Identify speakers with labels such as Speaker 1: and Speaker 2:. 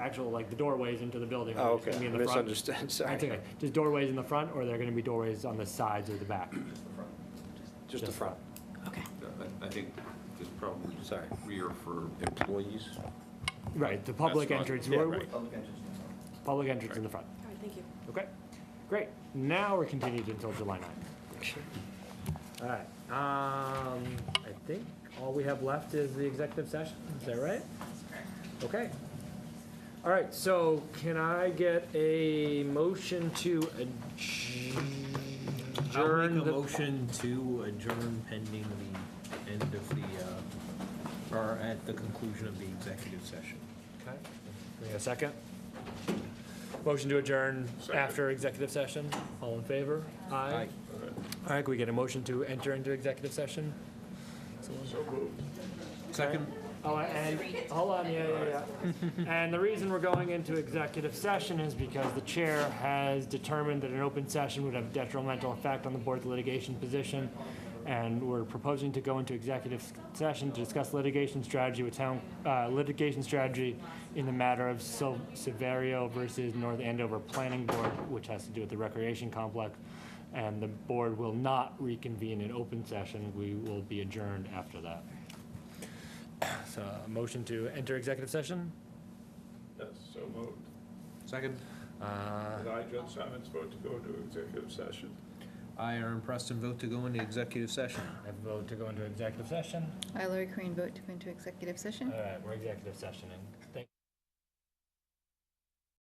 Speaker 1: actual, like, the doorways into the building.
Speaker 2: Oh,
Speaker 1: are just gonna
Speaker 2: okay,
Speaker 1: be in the front.
Speaker 2: misunderstood,
Speaker 1: That's
Speaker 2: sorry.
Speaker 1: okay. Just doorways in the front, or they're gonna be doorways on the sides or the back?
Speaker 2: Just the front.
Speaker 3: Okay.
Speaker 4: I think there's probably
Speaker 2: Sorry.
Speaker 4: rear for employees.
Speaker 1: Right, the public
Speaker 4: not-
Speaker 1: entrance,
Speaker 2: yeah,
Speaker 1: we're-
Speaker 2: right.
Speaker 5: Public entrance.
Speaker 1: public entrance in the front.
Speaker 3: All right, thank you.
Speaker 1: Okay, great. Now we're continued until July 9th. All right, um, I think all we have left is the executive session, is that right? Okay. All right, so can I get a motion to
Speaker 6: I'll
Speaker 1: adjourn?
Speaker 6: make a
Speaker 1: the-
Speaker 6: motion to adjourn pending the end of the, uh, or at the conclusion of the executive session.
Speaker 1: Okay. Give me a second. Motion to adjourn after executive session. All in favor? Aye. All right, can we get a motion to enter into executive session?
Speaker 6: Second?
Speaker 1: Oh, and, hold on, yeah, yeah, yeah. And the reason we're going into executive session is because the chair has determined that an open session would have detrimental effect on the board's litigation position. And we're proposing to go into executive session to discuss litigation strategy with town, uh, litigation strategy in the matter of Sil- Severio versus North Andover Planning Board, which has to do with the recreation complex. And the board will not reconvene in open session. We will be adjourned after that. So a motion to enter executive session?
Speaker 7: Yes, so moved.
Speaker 6: Second?
Speaker 1: Uh,
Speaker 7: And I, John Simons, vote to go into executive session.
Speaker 6: I, Aaron Preston, vote to go into executive session.
Speaker 1: I vote to go into executive session.
Speaker 8: I, Lori Crane, vote to go into executive
Speaker 1: All
Speaker 8: session.
Speaker 1: right, we're executive sessioning.